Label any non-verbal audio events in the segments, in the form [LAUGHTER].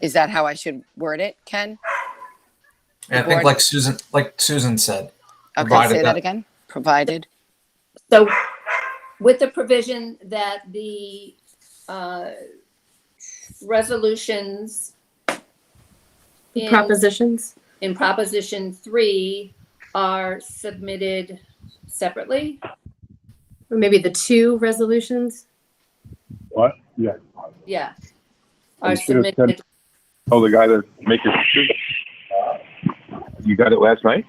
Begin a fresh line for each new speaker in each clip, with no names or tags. Is that how I should word it, Ken?
And I think like Susan, like Susan said,
Okay,
Provided
say that
that-
again. Provided.
So with the provision that the uh, resolutions in-
Propositions?
in Proposition 3 are submitted separately?
Or maybe the two resolutions?
What? Yeah.
Yeah. Are
Instead of
submitted,
Oh, the guy that makes it. You got it last night?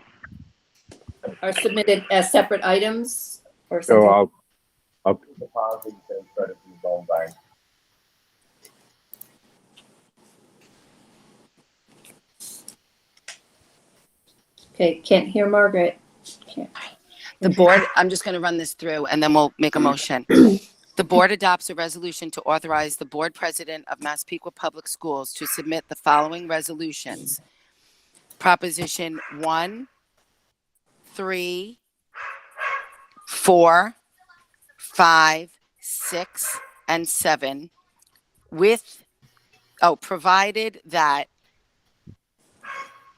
are submitted as separate items or
So
something?
Oh, I'll, I'll.
Okay, can't hear Margaret.
The board, I'm just going to run this through and then we'll make a motion. The board adopts a resolution to authorize the board president of Massapequa Public Schools to submit the following resolutions. Proposition one, three, four, five, six, and seven with, oh, provided that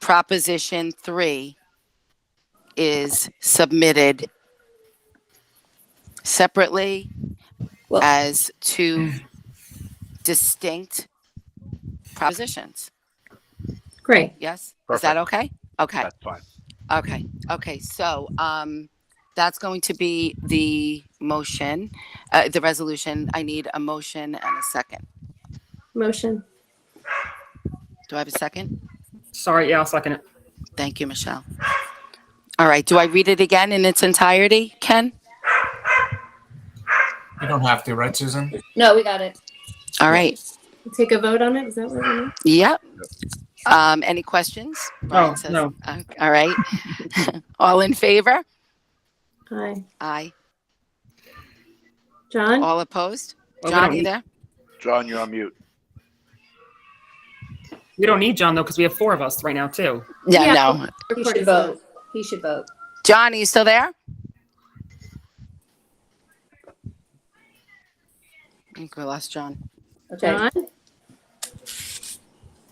proposition three is submitted separately
Well-
as two distinct propositions.
Great.
Yes? Is that okay? Okay,
That's fine.
okay, okay. So, um, that's going to be the motion, uh, the resolution. I need a motion and a second.
Motion.
Do I have a second?
Sorry, yeah, I'll second it.
Thank you, Michelle. All right, do I read it again in its entirety, Ken?
you don't have to, right, Susan?
No, we got it.
All right,
Take a vote on it? Is that what we're doing?
Yep. Um, any questions? Brian says-
Oh. no.
Uh, All right. [LAUGHS] All in favor?
Hi.
Aye.
John?
All opposed?
Well, we,
John,
don't
you
need,
there?
John, you're on mute.
we don't need John though, because we have four of us right now too.
Yeah,
Yeah.
no.
He should vote. He should vote.
John, are you still there? I think we lost John.
Okay,
John?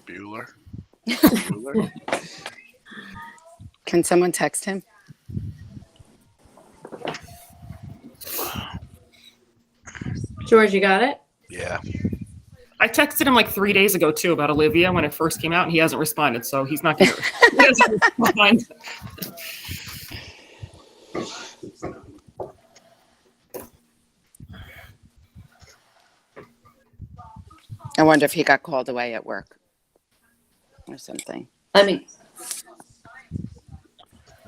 Bueller. Bueller.
Can someone text him?
George, you got it?
Yeah.
I texted him like three days ago too about Olivia when it first came out, and he hasn't responded, so he's not here. He hasn't responded.
I wonder if he got called away at work or something.
I mean,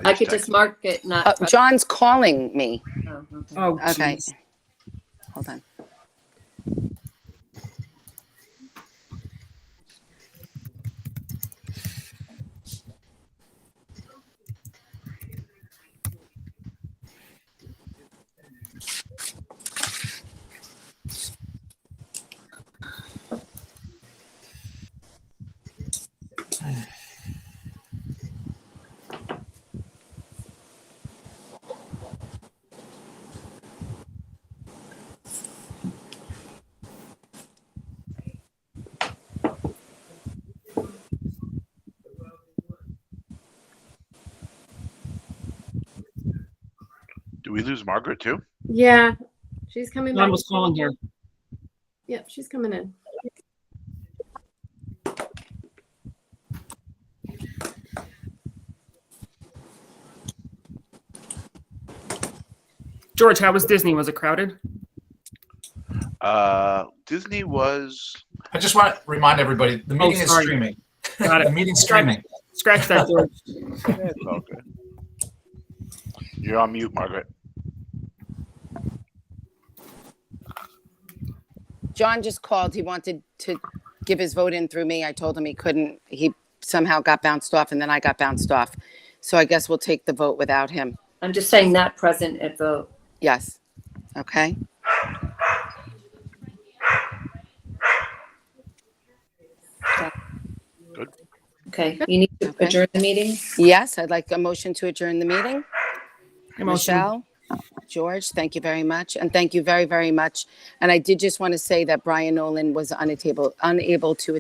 I could
texted
just mark it
Oh,
not.
John's calling me.
Oh, okay.
Oh,
Okay.
jeez.
Hold on.
Do we lose Margaret too?
Yeah. She's coming back.
John was calling here.
Yep, she's coming in.
George, how was Disney? Was it crowded?
Uh, Disney was.
I just want to remind everybody the
Oh,
meeting is
sorry.
streaming.
Got
The
it.
meeting's streaming.
Scratch that, George.
Yeah, it's all good. You're on mute, Margaret.
John just called. He wanted to give his vote in through me. I told him he couldn't. He somehow got bounced off, and then I got bounced off. So I guess we'll take the vote without him.
I'm just saying not present at vote.
Yes. Okay.
Okay, you need to
Okay.
adjourn the meeting?
Yes, I'd like a motion to adjourn the meeting.
Emotion.
Michelle, George, thank you very much, and thank you very, very much. And I did just want to say that Brian Nolan was unable unable to